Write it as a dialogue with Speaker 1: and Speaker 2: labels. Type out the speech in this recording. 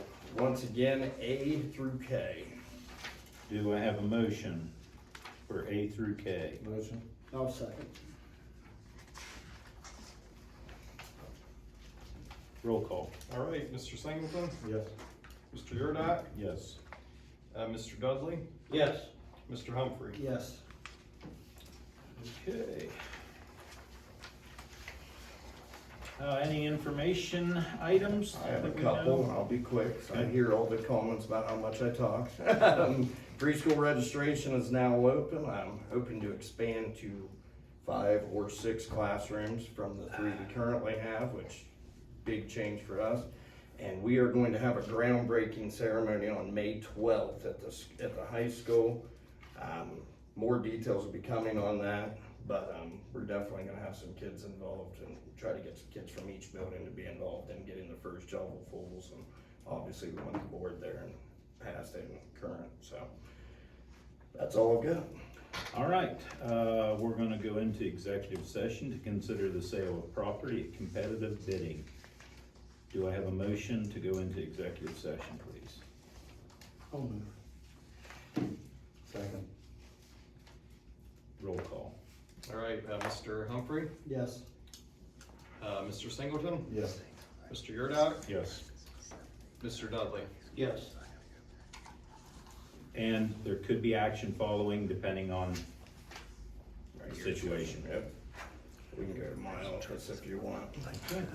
Speaker 1: Once again, A through K.
Speaker 2: Do I have a motion for A through K?
Speaker 3: Motion.
Speaker 4: I'll second.
Speaker 2: Roll call,
Speaker 5: All right, Mr. Singleton,
Speaker 3: Yes.
Speaker 5: Mr. Yurdak,
Speaker 2: yes.
Speaker 5: uh, Mr. Dudley,
Speaker 1: Yes.
Speaker 5: Mr. Humphrey.
Speaker 4: Yes.
Speaker 2: Okay. Uh, any information items?
Speaker 1: I have a
Speaker 2: that we
Speaker 1: couple, and
Speaker 2: know?
Speaker 1: I'll be quick, so I
Speaker 2: Okay.
Speaker 1: hear all the comments about how much I talk. Um, Preschool registration is now open, I'm hoping to expand to five or six classrooms from the three we currently have, which, big change for us. And we are going to have a groundbreaking ceremony on May twelfth at the, s- at the high school. Um, more details will be coming on that, but, um, we're definitely gonna have some kids involved and try to get some kids from each building to be involved in getting the first job of fools. And obviously, we want the board there and past and current, so that's all I've got.
Speaker 2: All right, uh, we're gonna go into executive session to consider the sale of property at competitive bidding. Do I have a motion to go into executive session, please?
Speaker 4: I'll move.
Speaker 3: Second.
Speaker 2: Roll call,
Speaker 5: All right, uh, Mr. Humphrey,
Speaker 4: Yes.
Speaker 5: uh, Mr. Singleton,
Speaker 3: Yes.
Speaker 5: Mr. Yurdak,
Speaker 2: yes.
Speaker 5: Mr. Dudley.
Speaker 4: Yes.
Speaker 2: And there could be action following depending on
Speaker 1: Right
Speaker 2: the
Speaker 1: here.
Speaker 2: situation.
Speaker 1: Yep. We can go to my office if you want.